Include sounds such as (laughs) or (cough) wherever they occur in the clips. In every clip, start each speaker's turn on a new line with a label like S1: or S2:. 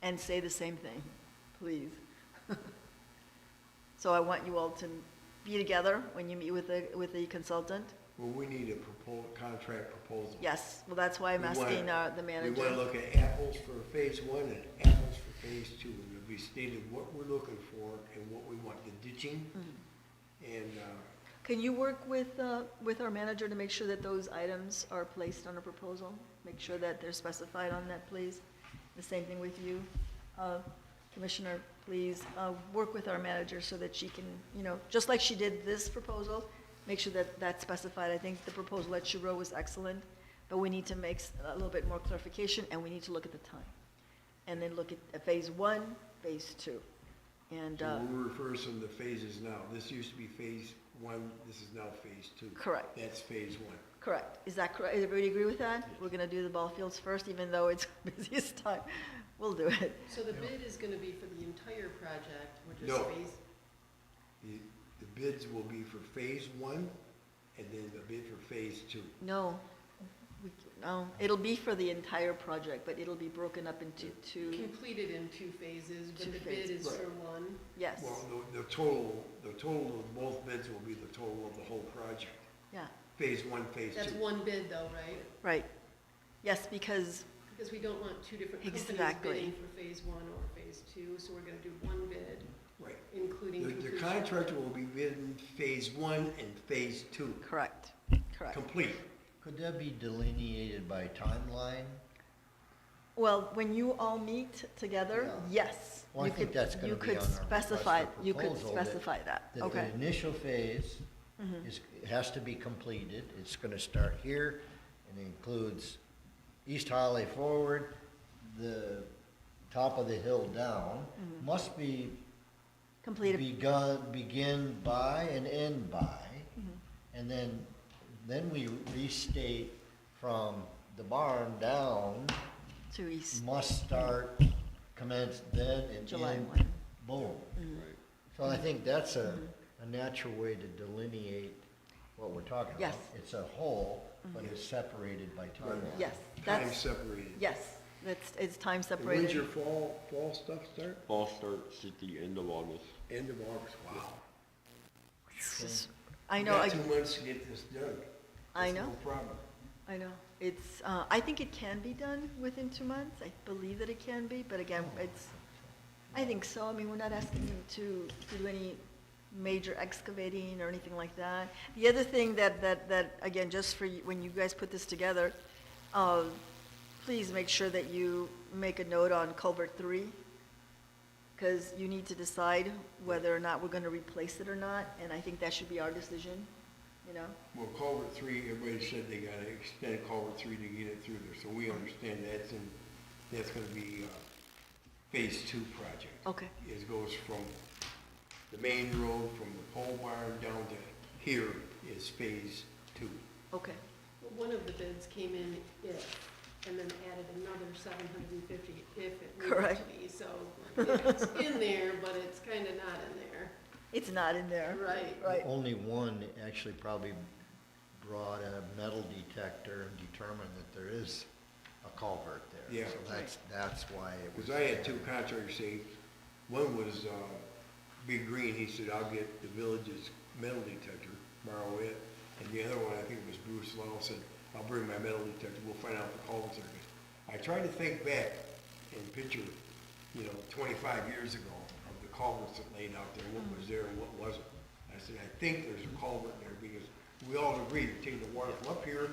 S1: and say the same thing, please. (laughs) So I want you all to be together when you meet with the, with the consultant.
S2: Well, we need a proposal, contract proposal.
S1: Yes, well, that's why I'm
S2: We wanna-
S1: asking uh, the
S2: We want to
S1: manager.
S2: look at apples for phase one and apples for phase two. And it'll be stated what we're looking for and what we want, the ditching.
S1: Mm-hmm.
S2: And, uh,
S1: Can you work with, uh, with our manager to make sure that those items are placed on a proposal? Make sure that they're specified on that, please. The same thing with you, uh, Commissioner, please, uh, work with our manager so that she can, you know, just like she did this proposal, make sure that that's specified. I think the proposal that she wrote was excellent, but we need to make s- a little bit more clarification, and we need to look at the time. And then look at uh, phase one, phase two, and, uh,
S2: so we'll refer some of the phases now. This used to be phase one, this is now phase two.
S1: Correct.
S2: That's phase one.
S1: Correct. Is that correct? Everybody agree with that? We're gonna do the ball fields first, even though it's (laughs) busiest time. We'll do it.
S3: So the bid is gonna be for the entire project, which is
S2: No.
S3: phase,
S2: The the bids will be for phase one and then the bid for phase two.
S1: No, we, no, it'll be for the entire project, but it'll be broken up into two,
S3: completed in two phases,
S1: Two
S3: but the bid
S1: phases.
S3: is for
S2: Right.
S3: one.
S1: yes,
S2: Well, the, the total, the total of both bids will be the total of the whole project.
S1: yeah,
S2: Phase one, phase two.
S3: That's one bid though, right?
S1: right. Yes, because,
S3: Because we don't want two different companies
S1: Exactly.
S3: bidding for phase one or phase two, so we're gonna do one bid,
S2: Right.
S3: including
S2: The, the
S3: completion.
S2: contractor will be bidding phase one and phase two,
S1: correct, correct.
S2: complete.
S4: Could that be delineated by timeline?
S1: Well, when you all meet together, yes.
S4: Well, I
S1: you
S4: think
S1: could-
S4: that's gonna
S1: you
S4: be
S1: could
S4: on our request
S1: specify-
S4: for
S1: You could
S4: proposal that-
S1: specify that,
S4: That
S1: okay. Mm-hmm.
S4: The initial phase is, has to be completed, it's gonna start here, and includes East Holly forward, the top of the hill down, must be
S1: Mm-hmm. Completed,
S4: begun, begin by and end by,
S1: Mm-hmm.
S4: and then, then we restate from the barn down,
S1: to east,
S4: must start, commence then and
S1: July
S4: end,
S1: one. Mm-hmm.
S4: boom. So I think that's a, a natural way to delineate what we're talking about.
S1: Yes. Mm-hmm.
S4: It's a whole, but it's separated by timeline.
S1: yes,
S2: Time
S1: that's,
S2: separated.
S1: yes, that's, it's time
S2: And When's your
S1: separated.
S2: fall, fall stuff start?
S5: Fall starts at the end of August.
S2: End of August, wow.
S1: It's just- I know, I-
S2: Got two months to get this done.
S1: I
S2: That's
S1: know.
S2: No problem.
S1: I know. It's, uh, I think it can be done within two months. I believe that it can be, but again, it's, I think so. I mean, we're not asking you to, to do any major excavating or anything like that. The other thing that, that, that, again, just for, you- when you guys put this together, uh, please make sure that you make a note on culvert three, because you need to decide whether or not we're gonna replace it or not, and I think that should be our decision, you know?
S2: Well, culvert three, everybody said they gotta extend culvert three to get it through there, so we understand that's in, that's gonna be, uh, phase two project.
S1: Okay.
S2: It goes from the main road, from the pole barn down to here is phase two.
S1: Okay.
S3: Well, One of the bids came in if, and then added another seven hundred and fifty if it needed
S1: Correct.
S3: to be, so yeah, it's in there, but it's kinda not in there,
S1: It's not in there.
S3: right?
S1: Right.
S4: Only one actually probably brought a metal detector and determined that there is a culvert there.
S2: Yeah.
S4: So that's, that's why it was.
S2: Because I had
S4: there.
S2: two contractors say, one was, uh, Big Green, he said, I'll get the village's metal detector, borrow it. And the other one, I think it was Bruce Lowell, said, I'll bring my metal detector, we'll find out the culverts are. I tried to think back and picture, you know, twenty-five years ago of the culverts that laid out there, what was there and what wasn't. I said, I think there's a culvert there because we all agreed to take the water from up here,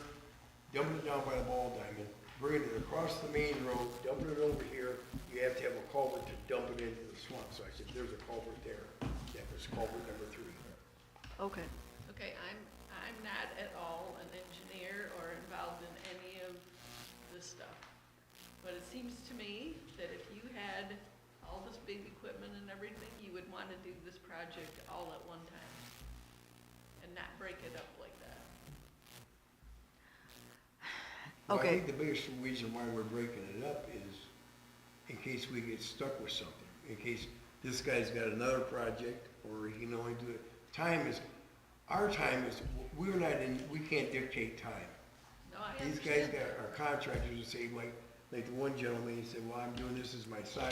S2: dumping it down by the ball diamond, bringing it across the main road, dumping it over here. You have to have a culvert to dump it into the swamp. So I said, there's a culvert there. That was culvert number three.
S1: Okay.
S6: Okay, I'm, I'm not at all an engineer or involved in any of this stuff. But it seems to me that if you had all this big equipment and everything, you would want to do this project all at one time and not break it up like that.
S2: Well, I
S1: Okay.
S2: think the biggest reason why we're breaking it up is in case we get stuck with something, in case this guy's got another project or he can only do it. Time is, our time is, we're not in, we can't dictate time.
S6: No, I
S2: These guys
S6: understand
S2: got,
S6: that.
S2: are contractors who say, like, like the one gentleman, he said, well, I'm doing this as my side